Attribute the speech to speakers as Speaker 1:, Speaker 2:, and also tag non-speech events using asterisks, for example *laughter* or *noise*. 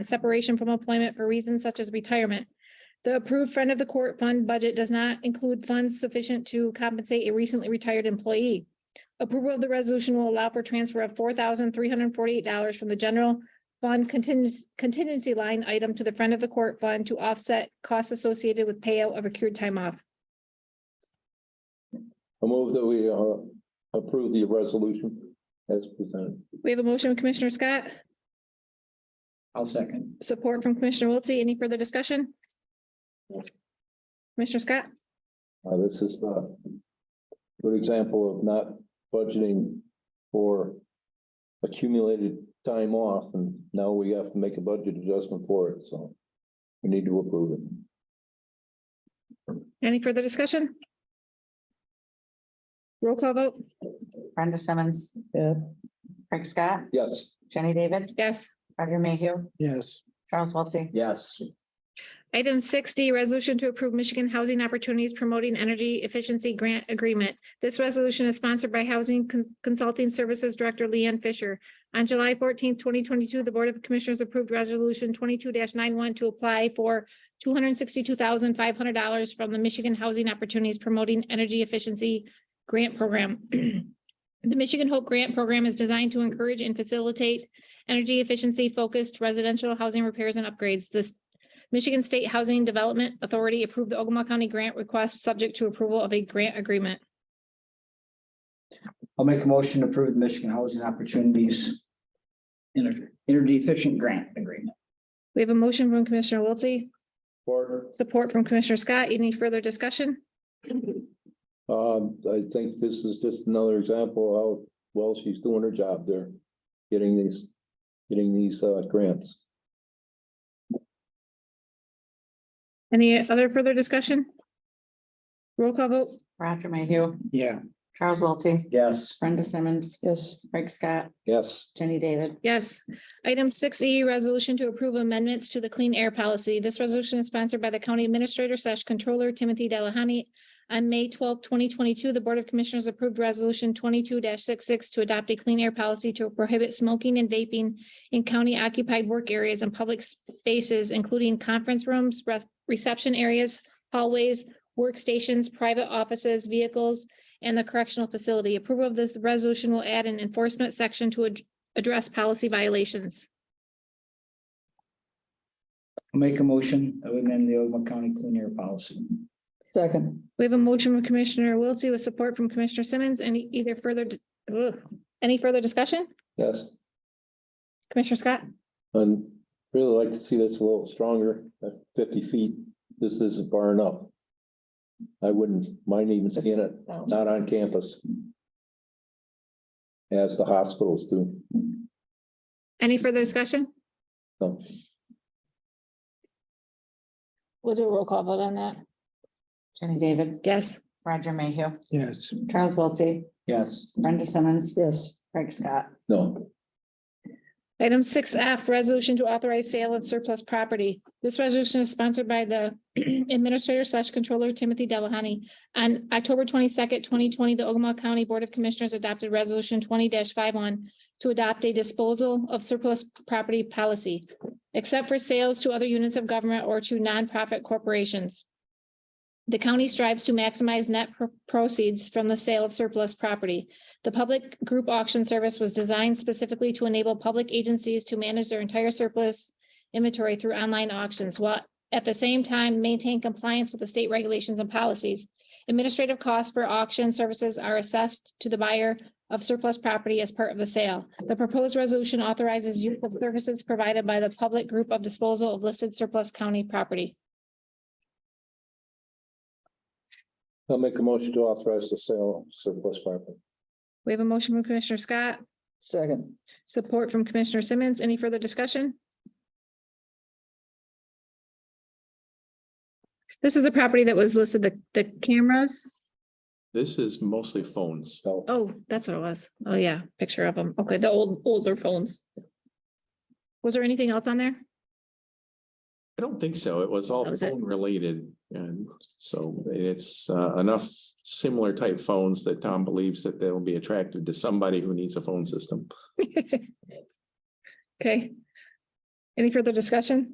Speaker 1: separation from employment for reasons such as retirement. The approved friend of the court fund budget does not include funds sufficient to compensate a recently retired employee. Approval of the resolution will allow for transfer of four thousand three hundred and forty-eight dollars from the general fund contingency, contingency line item to the friend of the court fund to offset costs associated with payout of accrued time off.
Speaker 2: I move that we uh, approve the resolution as presented.
Speaker 1: We have a motion, Commissioner Scott,
Speaker 3: I'll second.
Speaker 1: support from Commissioner Wiltie. Any further discussion? Commissioner Scott?
Speaker 2: Uh, This is a good example of not budgeting for accumulated time off, and now we have to make a budget adjustment for it, so we need to approve it.
Speaker 1: Any further discussion? Roll call vote?
Speaker 4: Brenda Simmons.
Speaker 3: Yeah.
Speaker 4: Craig Scott,
Speaker 2: Yes.
Speaker 4: Jenny David,
Speaker 1: Yes.
Speaker 4: Roger Mayhew,
Speaker 3: Yes.
Speaker 4: Charles Wiltie.
Speaker 3: Yes.
Speaker 1: Item sixty, resolution to approve Michigan Housing Opportunities Promoting Energy Efficiency Grant Agreement. This resolution is sponsored by Housing Cons- Consulting Services Director Leanne Fisher. On July fourteenth, twenty twenty-two, the Board of Commissioners approved Resolution twenty-two 91 to apply for two hundred and sixty-two thousand five hundred dollars from the Michigan Housing Opportunities Promoting Energy Efficiency Grant Program. *clears throat* The Michigan Hope Grant Program is designed to encourage and facilitate energy efficiency focused residential housing repairs and upgrades. This Michigan State Housing Development Authority approved the Ogama County grant request subject to approval of a grant agreement.
Speaker 3: I'll make a motion to approve the Michigan Housing Opportunities Energy Energy Efficient Grant Agreement.
Speaker 1: We have a motion from Commissioner Wiltie,
Speaker 2: Or,
Speaker 1: support from Commissioner Scott. Any further discussion?
Speaker 2: um, I think this is just another example of how well she's doing her job there, getting these, getting these uh, grants.
Speaker 1: Any other further discussion? Roll call vote.
Speaker 4: Roger Mayhew,
Speaker 3: Yeah.
Speaker 4: Charles Wiltie,
Speaker 3: Yes.
Speaker 4: Brenda Simmons. Yes. Craig Scott,
Speaker 2: Yes.
Speaker 4: Jenny David,
Speaker 1: Yes. Item six E, resolution to approve amendments to the clean air policy. This resolution is sponsored by the county administrator slash controller Timothy Delahoney. On May twelfth, twenty twenty-two, the Board of Commissioners approved resolution twenty-two 66 to adopt a clean air policy to prohibit smoking and vaping in county occupied work areas and public spaces, including conference rooms, ref- reception areas, hallways, workstations, private offices, vehicles, and the correctional facility. Approval of this resolution will add an enforcement section to ad- address policy violations.
Speaker 3: I'll make a motion to amend the Ogama County Clean Air Policy.
Speaker 4: Second.
Speaker 1: We have a motion from Commissioner Wiltie with support from Commissioner Simmons. Any either further, di- ugh. any further discussion?
Speaker 2: Yes.
Speaker 1: Commissioner Scott?
Speaker 2: And really like to see this a little stronger, at fifty feet, this isn't far enough. I wouldn't mind even seeing it, not on campus. As the hospitals do,
Speaker 1: Any further discussion?
Speaker 2: so,
Speaker 1: We'll do a roll call vote on that.
Speaker 4: Jenny David,
Speaker 1: Yes.
Speaker 4: Roger Mayhew,
Speaker 3: Yes.
Speaker 4: Charles Wiltie,
Speaker 3: Yes.
Speaker 4: Brenda Simmons. Yes. Craig Scott,
Speaker 2: no,
Speaker 1: Item six F, resolution to authorize sale of surplus property. This resolution is sponsored by the *clears throat* Administrator slash Controller Timothy Delahoney. On October twenty-second, twenty twenty, the Ogama County Board of Commissioners adopted Resolution twenty 51 to adopt a disposal of surplus property policy, except for sales to other units of government or to nonprofit corporations. The county strives to maximize net pro- proceeds from the sale of surplus property. The public group auction service was designed specifically to enable public agencies to manage their entire surplus inventory through online auctions, while at the same time maintain compliance with the state regulations and policies. Administrative costs for auction services are assessed to the buyer of surplus property as part of the sale. The proposed resolution authorizes use of services provided by the public group of disposal of listed surplus county property.
Speaker 2: I'll make a motion to authorize the sale of surplus property.
Speaker 1: We have a motion from Commissioner Scott,
Speaker 3: Second.
Speaker 1: support from Commissioner Simmons. Any further discussion? This is a property that was listed, the, the cameras.
Speaker 5: This is mostly phones.
Speaker 2: So,
Speaker 1: Oh, that's what it was. Oh, yeah, picture of them. Okay, the old, older phones. Was there anything else on there? *laughs*
Speaker 5: I don't think so. It was all
Speaker 1: That was it.
Speaker 5: phone related. And so it's uh, enough similar type phones that Tom believes that they'll be attracted to somebody who needs a phone system.
Speaker 1: Okay. Any further discussion?